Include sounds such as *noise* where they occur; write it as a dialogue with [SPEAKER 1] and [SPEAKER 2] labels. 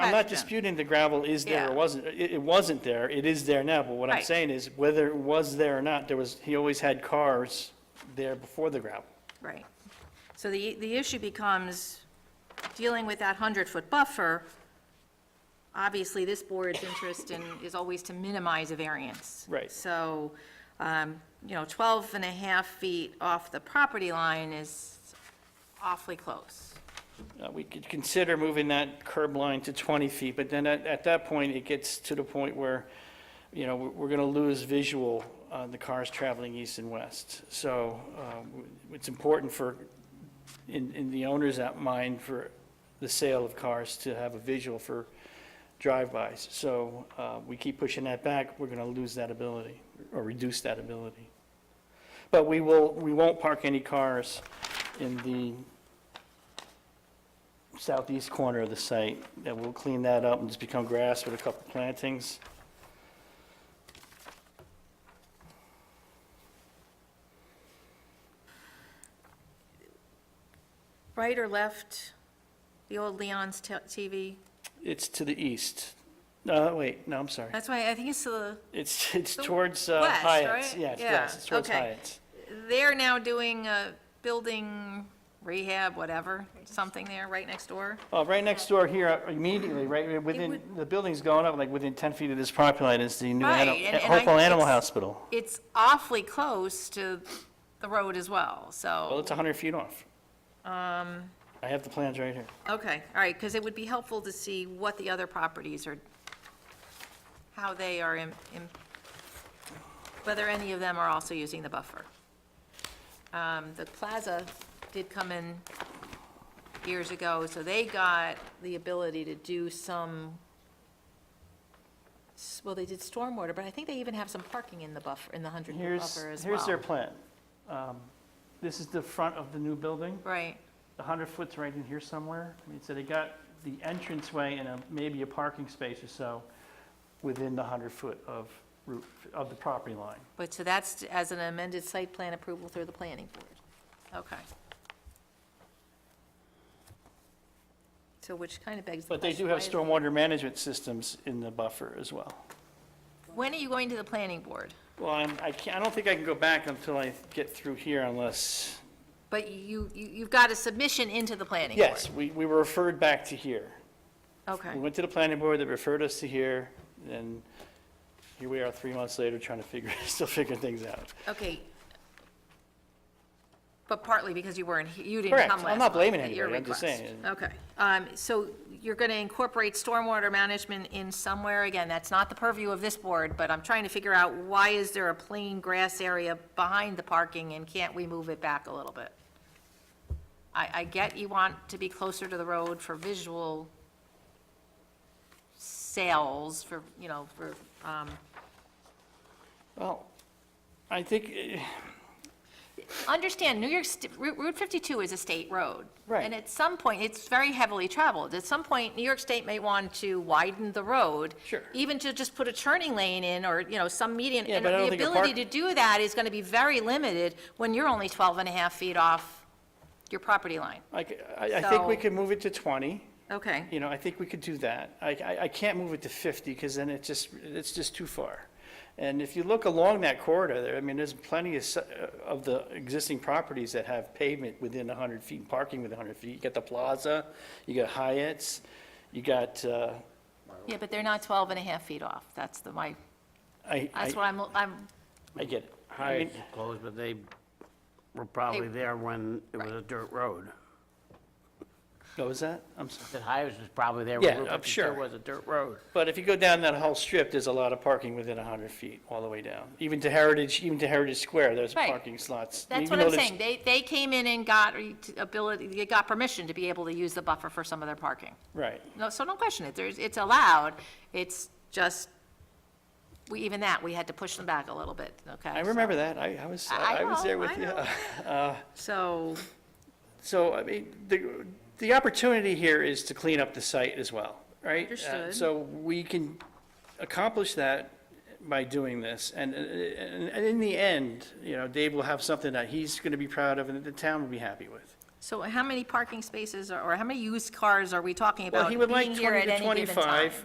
[SPEAKER 1] I'm not
[SPEAKER 2] Correct.
[SPEAKER 1] disputing the gravel is there or
[SPEAKER 2] Yeah.
[SPEAKER 1] wasn't, it, it wasn't there, it is there now, but what I'm
[SPEAKER 2] Right.
[SPEAKER 1] saying is whether it was there or not, there was, he always had cars there before the gravel.
[SPEAKER 2] Right. So the, the issue becomes dealing with that 100-foot buffer. Obviously, this board's interest in, is always to minimize a variance.
[SPEAKER 1] Right.
[SPEAKER 2] So, um, you know, 12 and a half feet off the property line is awfully close.
[SPEAKER 1] Uh, we could consider moving that curb line to 20 feet, but then at, at that point, it gets to the point where, you know, we're, we're gonna lose visual on the cars traveling east and west. So, um, it's important for, in, in the owner's at mind for the sale of cars to have a visual for drive-bys. So, uh, we keep pushing that back, we're gonna lose that ability, or reduce that ability. But we will, we won't park any cars in the southeast corner of the site, and we'll clean that up and just become grass with a couple plantings.
[SPEAKER 2] Right or left, the old Leon's te- TV?
[SPEAKER 1] It's to the east. No, wait, no, I'm sorry.
[SPEAKER 2] That's why, I think it's the,
[SPEAKER 1] It's, it's
[SPEAKER 2] Uh, The
[SPEAKER 1] towards uh,
[SPEAKER 2] west,
[SPEAKER 1] Hyatt's.
[SPEAKER 2] right?
[SPEAKER 1] Yeah, it's
[SPEAKER 2] Yeah,
[SPEAKER 1] west, it's towards
[SPEAKER 2] okay.
[SPEAKER 1] Hyatt's.
[SPEAKER 2] they're now doing a building rehab, whatever, something there, right next door.
[SPEAKER 1] Uh, right next door here, immediately, right within,
[SPEAKER 2] would-
[SPEAKER 1] the building's going up, like within 10 feet of this property line is the new
[SPEAKER 2] Right,
[SPEAKER 1] ani-
[SPEAKER 2] and- and I-
[SPEAKER 1] Hopewell Animal
[SPEAKER 2] it's-
[SPEAKER 1] Hospital.
[SPEAKER 2] it's awfully close to the road as well,
[SPEAKER 1] Well,
[SPEAKER 2] so,
[SPEAKER 1] it's 100 feet off.
[SPEAKER 2] Um,
[SPEAKER 1] I have the plans right here.
[SPEAKER 2] okay, all right, because it would be helpful to see what the other properties are, how they are, im- im- whether any of them are also using the buffer. Um, The plaza did come in years ago, so they got the ability to do some, s- well, they did stormwater, but I think they even have some parking in the buffer, in the 100-foot
[SPEAKER 1] Here's,
[SPEAKER 2] buffer as well.
[SPEAKER 1] here's their plan. Um, This is the front of the new building.
[SPEAKER 2] Right.
[SPEAKER 1] The 100 foot's right in here somewhere. I mean, so they got the entranceway and a- maybe a parking space or so within the 100 foot of route, of the property line.
[SPEAKER 2] But, so that's as an amended site plan approval through the planning board? Okay. So which kind of begs the
[SPEAKER 1] But
[SPEAKER 2] question.
[SPEAKER 1] they do have
[SPEAKER 2] why-
[SPEAKER 1] stormwater management systems in the buffer as well.
[SPEAKER 2] When are you going to the planning board?
[SPEAKER 1] Well, I'm- I can't, I don't think I can go back until I get through here unless,
[SPEAKER 2] But you, you- you've got a submission into the planning board?
[SPEAKER 1] yes, we, we were referred back to here.
[SPEAKER 2] Okay,
[SPEAKER 1] We went to the planning board, they referred us to here, and here we are three months later trying to figure, *laughs* still figuring things out.
[SPEAKER 2] okay. But partly because you weren't, he- you didn't
[SPEAKER 1] Correct.
[SPEAKER 2] come last
[SPEAKER 1] I'm
[SPEAKER 2] month.
[SPEAKER 1] not blaming
[SPEAKER 2] at your
[SPEAKER 1] anybody. I'm just
[SPEAKER 2] request.
[SPEAKER 1] saying.
[SPEAKER 2] Okay, um, so you're going to incorporate stormwater management in somewhere, again, that's not the purview of this board, but I'm trying to figure out why is there a plain grass area behind the parking, and can't we move it back a little bit? I, I get you want to be closer to the road for visual sales, for, you know, for, um,
[SPEAKER 1] Well, I think, eh,
[SPEAKER 2] understand, New York, St- Route Route 52 is a state road.
[SPEAKER 1] Right.
[SPEAKER 2] And at some point, it's very heavily traveled. At some point, New York State may want to widen the road.
[SPEAKER 1] Sure.
[SPEAKER 2] Even to just put a turning lane in, or, you know, some median.
[SPEAKER 1] Yeah, but I don't think a
[SPEAKER 2] And the ability to
[SPEAKER 1] park-
[SPEAKER 2] do that is going to be very limited when you're only 12 and a half feet off your property line.
[SPEAKER 1] I, c- I- I think we
[SPEAKER 2] So-
[SPEAKER 1] could move it to 20.
[SPEAKER 2] Okay.
[SPEAKER 1] You know, I think we could do that. I, I, I can't move it to 50 because then it just, it's just too far. And if you look along that corridor there, I mean, there's plenty of, s- uh, of the existing properties that have pavement within 100 feet, parking within 100 feet. You got the Plaza, you got Hyatt's, you got, uh,
[SPEAKER 2] Yeah, but they're not 12 and a half feet off. That's the, my,
[SPEAKER 1] I,
[SPEAKER 2] that's what
[SPEAKER 1] I,
[SPEAKER 2] I'm, I'm,
[SPEAKER 1] I get it. I mean,
[SPEAKER 3] Hyatt's closed, but they were probably there when it was a dirt road.
[SPEAKER 1] what was that? I'm sorry.
[SPEAKER 3] That Hyatt's was probably there
[SPEAKER 1] Yeah,
[SPEAKER 3] when
[SPEAKER 1] I'm
[SPEAKER 3] Route 52
[SPEAKER 1] sure.
[SPEAKER 3] was a dirt road.
[SPEAKER 1] But if you go down that whole strip, there's a lot of parking within 100 feet, all the way down. Even to Heritage, even to Heritage Square, there's
[SPEAKER 2] Right.
[SPEAKER 1] parking slots.
[SPEAKER 2] that's
[SPEAKER 1] Even
[SPEAKER 2] what I'm
[SPEAKER 1] though there's-
[SPEAKER 2] saying. They, they came in and got re- ability, they got permission to be able to use the buffer for some of their parking.
[SPEAKER 1] Right.
[SPEAKER 2] No, so don't question it. There's, it's allowed. It's just, we, even that, we had to push them back a little bit, okay?
[SPEAKER 1] I remember that. I, I was,
[SPEAKER 2] I- I
[SPEAKER 1] I was
[SPEAKER 2] know,
[SPEAKER 1] there with
[SPEAKER 2] I
[SPEAKER 1] you.
[SPEAKER 2] know. So,
[SPEAKER 1] *laughs* So, I mean, the, the opportunity here is to clean up the site as well, right? Uh,
[SPEAKER 2] Understood.
[SPEAKER 1] So we can accomplish that by doing this. And, and and in the end, you know, Dave will have something that he's going to be proud of and that the town will be happy with.
[SPEAKER 2] So how many parking spaces, are- or how many used cars are we talking about
[SPEAKER 1] Well, he would like
[SPEAKER 2] being here
[SPEAKER 1] 20
[SPEAKER 2] at
[SPEAKER 1] to
[SPEAKER 2] any given time?
[SPEAKER 1] 25.